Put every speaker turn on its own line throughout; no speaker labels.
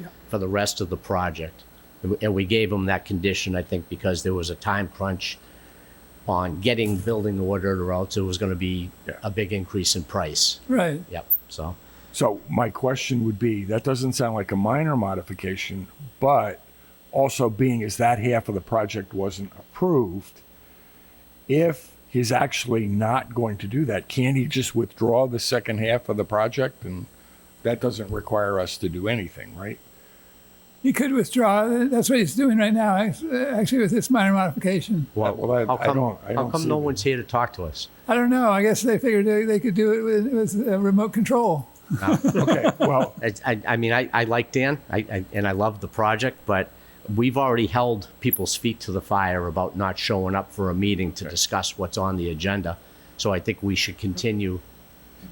Yeah.
for the rest of the project. And we- And we gave them that condition, I think, because there was a time crunch on getting building ordered or else it was going to be
Yeah.
a big increase in price.
Right.
Yep, so.
So my question would be, that doesn't sound like a minor modification, but also being as that half of the project wasn't approved, if he's actually not going to do that, can he just withdraw the second half of the project? And that doesn't require us to do anything, right?
He could withdraw. That's what he's doing right now, act- actually, with this minor modification.
Well, well, I-
how
I
come-
don't- I
How
don't
come
see
no
that.
one's here to talk to us?
I don't know. I guess they figured they, they could do it with, with uh, remote control.
Okay, well,
I, I, I mean, I, I like Dan, I, I, and I love the project, but we've already held people's feet to the fire about not showing up for a meeting to discuss what's on the agenda. So I think we should continue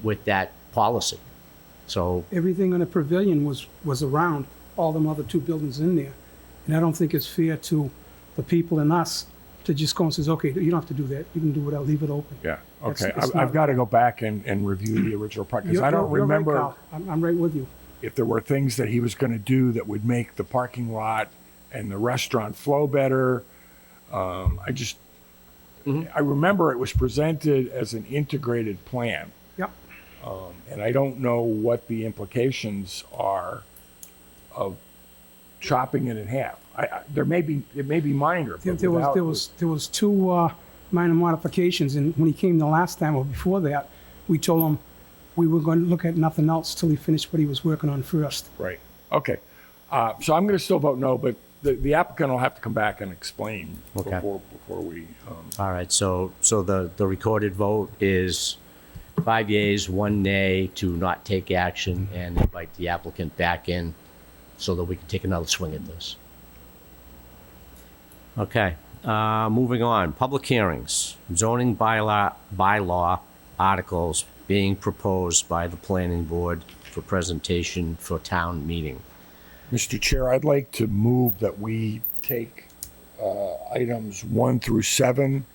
with that policy. So,
everything on the pavilion was, was around all them other two buildings in there. And I don't think it's fair to the people and us to just go and says, okay, you don't have to do that. You can do whatever, leave it open.
yeah,
It's-
okay.
it's
I- I've
not-
got to go back and, and review the original project, because
You're-
I don't
you're- you're right,
remember
Kyle. I'm, I'm right with you.
if there were things that he was going to do that would make the parking lot and the restaurant flow better. Um, I just, I remember it was presented as an integrated plan,
Yep.
and I don't know what the implications are of chopping it in half. I, I, there may be, it may be minor.
There,
but
there was,
without-
there was, there was two, uh, minor modifications and when he came the last time or before that, we told him we were going to look at nothing else till he finished what he was working on first.
Right. Okay. Uh, so I'm going to still vote no, but the, the applicant will have to come back and explain
Okay.
before, before we, um,
all right, so, so the, the recorded vote is five yeas, one nay to not take action and invite the applicant back in so that we can take another swing at this. Okay, uh, moving on, public hearings, zoning bylaw, bylaw articles being proposed by the planning board for presentation for town meeting.
Mr. Chair, I'd like to move that we take uh, items one through seven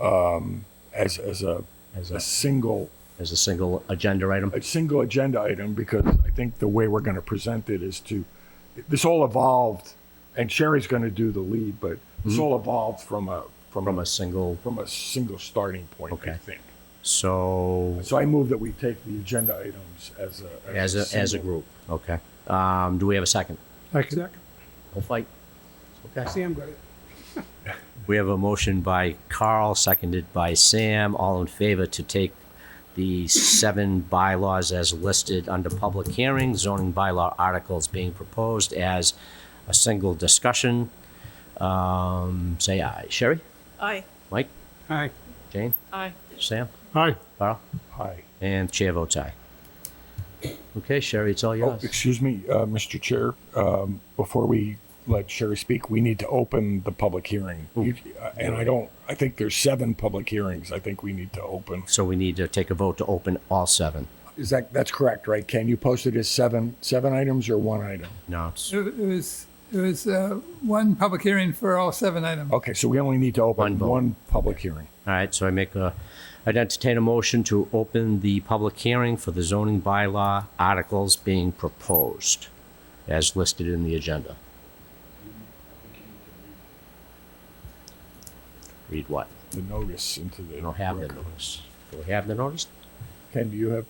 um, as, as a,
As
a
a,
single,
as a single agenda item?
a single agenda item, because I think the way we're going to present it is to, this all evolved, and Sherry's going to do the lead, but
Mm-hmm.
this all evolved from a,
From
from
a
a,
single,
from a single starting point, I
Okay.
think.
so.
So I move that we take the agenda items as a.
As a, as a
single.
group, okay. Um, do we have a second?
Second.
We'll fight. Okay.
Sam got it.
We have a motion by Carl, seconded by Sam, all in favor to take the seven bylaws as listed under public hearing, zoning bylaw articles being proposed as a single discussion. Um, say aye. Sherry?
Aye.
Mike?
Aye.
Jane?
Aye.
Sam?
Aye.
Carl?
Aye.
And chair votes aye. Okay, Sherry, it's all
Oh,
yours.
excuse me, uh, Mr. Chair, um, before we let Sherry speak, we need to open the public hearing. You- uh, And I don't, I think there's seven public hearings I think we need to open.
So we need to take a vote to open all seven.
Is that, that's correct, right? Ken, you posted as seven, seven items or one item?
No, it's
It, it was, it was uh, one public hearing for all seven items.
Okay, so we only need to
One
open
vote.
one public hearing.
All right, so I make a, I'd entertain a motion to open the public hearing for the zoning bylaw articles being proposed as listed in the agenda. Read what?
The notice into the.
We don't have the notice. Do we have the notice?
Ken, do you have?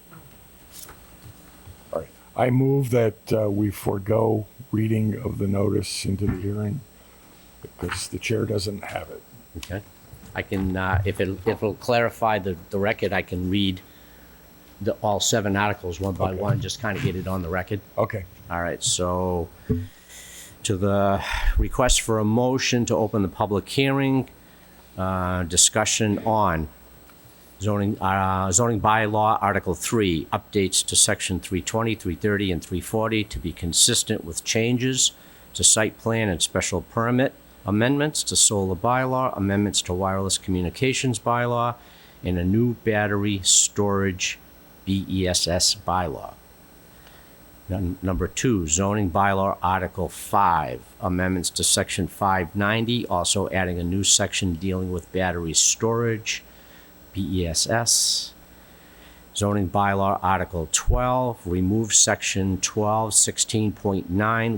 All right. I move that uh, we forego reading of the notice into the hearing because the chair doesn't have it.
Okay. I can, uh, if it, if it'll clarify the, the record, I can read the, all seven articles one by
Okay.
one, just kind of get it on the record.
Okay.
All right, so to the request for a motion to open the public hearing, uh, discussion on zoning, uh, zoning bylaw, Article 3, updates to Section 320, 330, and 340 to be consistent with changes to site plan and special permit, amendments to solar bylaw, amendments to wireless communications bylaw, and a new battery storage BESS bylaw. Num- Number two, zoning bylaw Article 5, amendments to Section 590, also adding a new section dealing with battery storage, E BESS. Zoning bylaw Article 12, remove Section 12, 16.9,